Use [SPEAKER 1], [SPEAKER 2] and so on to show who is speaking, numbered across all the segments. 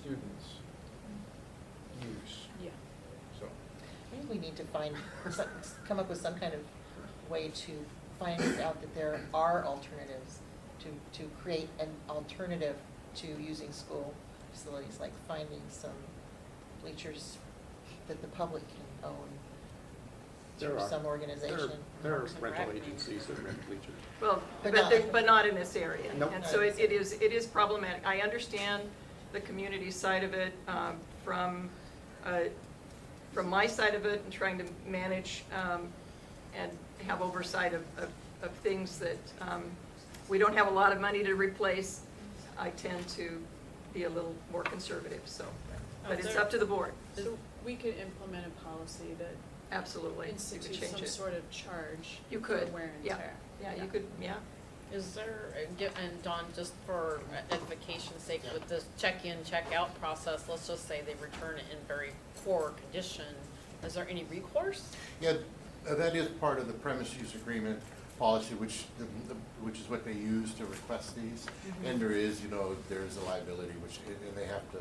[SPEAKER 1] students use,
[SPEAKER 2] Yeah.
[SPEAKER 1] so.
[SPEAKER 3] Maybe we need to find, some- come up with some kind of way to find out that there are alternatives, to, to create an alternative to using school facilities, like finding some bleachers that the public can own
[SPEAKER 4] There
[SPEAKER 3] through
[SPEAKER 4] are-
[SPEAKER 3] some
[SPEAKER 4] there are-
[SPEAKER 3] organization.
[SPEAKER 4] There are
[SPEAKER 5] Parks and
[SPEAKER 4] rental
[SPEAKER 5] Rec maybe.
[SPEAKER 4] agencies that rent bleachers.
[SPEAKER 5] Well,
[SPEAKER 3] But
[SPEAKER 5] but,
[SPEAKER 3] not-
[SPEAKER 5] they- but not in this area.
[SPEAKER 4] Nope.
[SPEAKER 5] And so it it is, it is problematic. I understand the community side of it um, from, uh, from my side of it and trying to manage um, and have oversight of, of- of things that, um, we don't have a lot of money to replace. I tend to be a little more conservative, so, but it's up to the board,
[SPEAKER 2] So we could implement a policy that
[SPEAKER 5] absolutely. You could
[SPEAKER 2] institutes
[SPEAKER 5] change
[SPEAKER 2] some
[SPEAKER 5] it.
[SPEAKER 2] sort of charge
[SPEAKER 5] You
[SPEAKER 2] for
[SPEAKER 5] could,
[SPEAKER 2] wear and
[SPEAKER 5] yeah,
[SPEAKER 2] tear.
[SPEAKER 5] yeah, you could, yeah.
[SPEAKER 6] Is there, a gi- and Don, just for edification's sake, with this check-in, check-out process, let's just say they return it in very poor condition, is there any recourse?
[SPEAKER 7] Yeah, uh, that is part of the premise use agreement policy, which, the- the- which is what they use to request these. Mm-hmm. And there is, you know, there is a liability, which, and and they have to,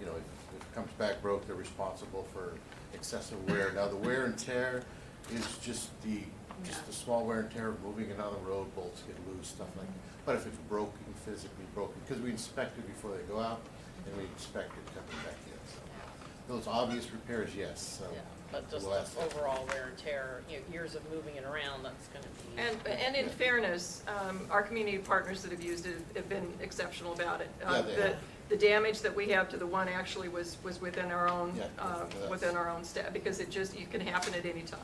[SPEAKER 7] you know, if if it comes back broke, they're responsible for excessive wear. Now, the wear and tear is just the, just the small wear and tear of moving it on the road, bolts get loose, stuff like that. But if it's broken, physically broken, because we inspect it before they go out, and we inspect it coming back in, so. Those obvious repairs, yes, so.
[SPEAKER 6] Yeah, But just
[SPEAKER 7] we'll ask
[SPEAKER 6] the
[SPEAKER 7] that.
[SPEAKER 6] overall wear and tear, you know, years of moving it around, that's gonna be.
[SPEAKER 5] And, and in fairness, um, our community partners that have used it have been exceptional about it. Uh,
[SPEAKER 7] Yeah, they
[SPEAKER 5] the-
[SPEAKER 7] have.
[SPEAKER 5] The damage that we have to the one actually was, was within our own,
[SPEAKER 7] Yeah,
[SPEAKER 5] uh,
[SPEAKER 7] that's-
[SPEAKER 5] within our own staff, because it just, it can happen at any time.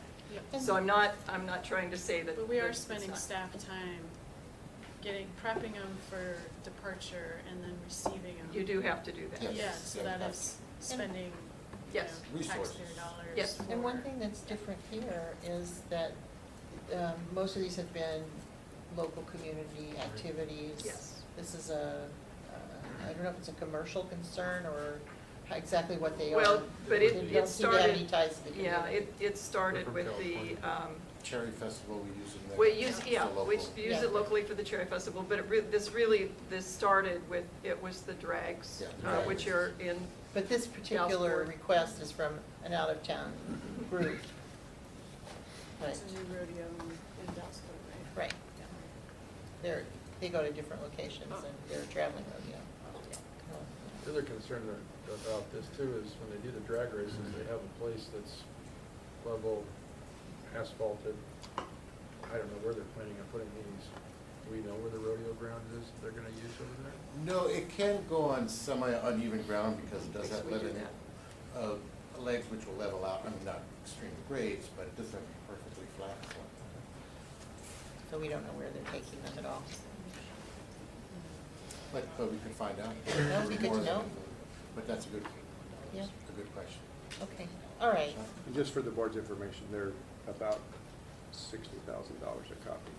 [SPEAKER 2] Yeah.
[SPEAKER 5] So I'm not, I'm not trying to say that.
[SPEAKER 2] But we
[SPEAKER 5] that
[SPEAKER 2] are
[SPEAKER 5] it's
[SPEAKER 2] spending
[SPEAKER 5] not.
[SPEAKER 2] staff time getting, prepping them for departure and then receiving them.
[SPEAKER 5] You do have to do that.
[SPEAKER 7] Yes.
[SPEAKER 2] Yeah, so
[SPEAKER 7] yeah,
[SPEAKER 2] that
[SPEAKER 7] yeah.
[SPEAKER 2] is spending, you know,
[SPEAKER 5] Yes.
[SPEAKER 2] taxpayer
[SPEAKER 7] Resources.
[SPEAKER 2] dollars.
[SPEAKER 5] Yes.
[SPEAKER 3] And one
[SPEAKER 2] for-
[SPEAKER 3] thing that's different here is that um, most of these have been local community activities.
[SPEAKER 5] Yes.
[SPEAKER 3] This is a, uh, I don't know if it's a commercial concern or how- exactly what they are.
[SPEAKER 5] Well, but it,
[SPEAKER 3] They
[SPEAKER 5] it
[SPEAKER 3] don't seem to have
[SPEAKER 5] started,
[SPEAKER 3] any ties to the community.
[SPEAKER 5] yeah, it, it started
[SPEAKER 4] from
[SPEAKER 5] with the,
[SPEAKER 4] California.
[SPEAKER 5] um,
[SPEAKER 7] Cherry Festival, we use it there.
[SPEAKER 5] We use,
[SPEAKER 7] It's a
[SPEAKER 5] yeah, we
[SPEAKER 7] local-
[SPEAKER 5] use
[SPEAKER 3] Yeah.
[SPEAKER 5] it locally for the Cherry Festival, but it re- this really, this started with, it was the drags,
[SPEAKER 7] Yeah,
[SPEAKER 5] uh,
[SPEAKER 7] drag
[SPEAKER 5] which are
[SPEAKER 7] races.
[SPEAKER 5] in,
[SPEAKER 3] But this particular
[SPEAKER 5] Board.
[SPEAKER 3] request is from an out-of-town group. Right,
[SPEAKER 2] It's a new rodeo in Dalesville, right?
[SPEAKER 3] right. They're, they go to different locations and they're traveling, rodeo.
[SPEAKER 5] Oh.
[SPEAKER 1] The other concern a- about this too is when they do the drag races, they have a place that's level asphalted. I don't know where they're planning on putting these. Do we know where the rodeo ground is that they're gonna use over there?
[SPEAKER 7] No, it can go on semi uneven ground because it does
[SPEAKER 5] Because
[SPEAKER 7] have
[SPEAKER 5] we do
[SPEAKER 7] level, uh, legs which will level out, I mean, not extreme grades, but it doesn't have to be perfectly flat. so.
[SPEAKER 3] So we don't know where they're taking them at all.
[SPEAKER 7] But, but we can find out.
[SPEAKER 3] That would be good to know.
[SPEAKER 7] But that's a good,
[SPEAKER 3] Yeah.
[SPEAKER 7] a good question.
[SPEAKER 3] Okay, all right.
[SPEAKER 4] And just for the board's information, they're about sixty thousand dollars a copy.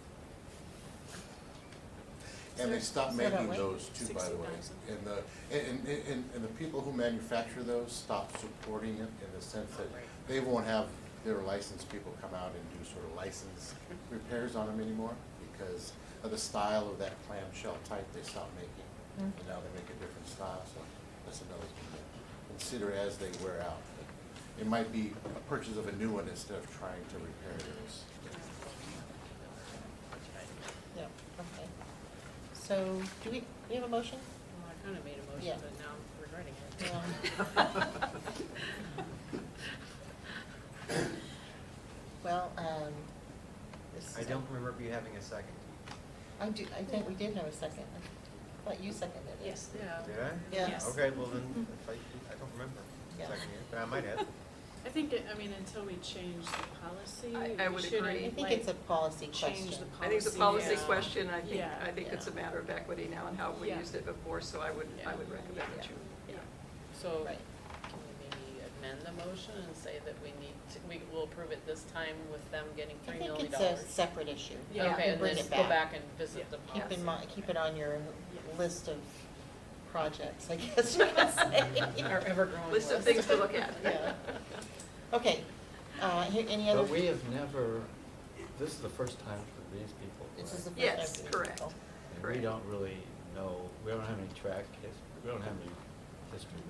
[SPEAKER 7] And they stopped
[SPEAKER 3] Is that
[SPEAKER 7] making
[SPEAKER 3] right?
[SPEAKER 7] those too, by the way.
[SPEAKER 2] 60,000.
[SPEAKER 7] And the, and, and- and, and the people who manufacture those stopped supporting it in the sense that they won't have their licensed people come out and do sort of license repairs on them anymore because of the style of that clamshell type they stopped making. And
[SPEAKER 3] Mm.
[SPEAKER 7] now they make a different style, so that's another thing to consider as they wear out. It might be a purchase of a new one instead of trying to repair those.
[SPEAKER 3] Yeah, okay. So, do we, do we have a motion?
[SPEAKER 6] Well, I kinda made a
[SPEAKER 3] Yeah.
[SPEAKER 6] motion, but now I'm regretting it.
[SPEAKER 3] Yeah. Well, um, this is.
[SPEAKER 8] I don't remember you having a second.
[SPEAKER 3] I do, I think we did have a second. I thought you seconded it.
[SPEAKER 2] Yes.
[SPEAKER 6] Yeah.
[SPEAKER 8] Did I?
[SPEAKER 3] Yeah.
[SPEAKER 2] Yes.
[SPEAKER 8] Okay, well then, if I, I don't remember
[SPEAKER 3] Yeah.
[SPEAKER 8] seconding it, but I might have.
[SPEAKER 2] I think, it- I mean, until we change the
[SPEAKER 5] I-
[SPEAKER 2] policy,
[SPEAKER 5] I
[SPEAKER 2] we
[SPEAKER 5] would
[SPEAKER 2] shouldn't,
[SPEAKER 5] agree.
[SPEAKER 3] I
[SPEAKER 2] like,
[SPEAKER 3] think it's a policy question.
[SPEAKER 2] change the policy.
[SPEAKER 5] I think it's a policy
[SPEAKER 2] Yeah.
[SPEAKER 5] question, I think,
[SPEAKER 2] Yeah.
[SPEAKER 5] I think it's a matter of equity now and how we
[SPEAKER 2] Yeah.
[SPEAKER 5] used it before, so I would, I would recommend that you.
[SPEAKER 6] So,
[SPEAKER 3] Right.
[SPEAKER 6] can we maybe amend the motion and say that we need to, we will approve it this time with them getting
[SPEAKER 3] I
[SPEAKER 6] three
[SPEAKER 3] think
[SPEAKER 6] million
[SPEAKER 3] it's a
[SPEAKER 6] dollars?
[SPEAKER 3] separate issue. You
[SPEAKER 5] Yeah. Okay,
[SPEAKER 3] can
[SPEAKER 6] and
[SPEAKER 3] bring
[SPEAKER 6] then
[SPEAKER 3] it
[SPEAKER 6] go back and visit
[SPEAKER 2] Yeah.
[SPEAKER 6] the policy.
[SPEAKER 3] Keep in mind, keep it on your
[SPEAKER 2] Yeah.
[SPEAKER 3] list of projects, I guess you could say.
[SPEAKER 6] Our ever-growing
[SPEAKER 5] List of things to look at.
[SPEAKER 3] Yeah. Okay, uh, here- any other?
[SPEAKER 9] But we have never, this is the first time for these people,
[SPEAKER 3] This is the
[SPEAKER 9] right?
[SPEAKER 3] first.
[SPEAKER 5] Yes,
[SPEAKER 3] I've-
[SPEAKER 5] correct.
[SPEAKER 3] oh,
[SPEAKER 9] And
[SPEAKER 5] correct.
[SPEAKER 9] we don't really know, we don't have any track, his- we don't have any history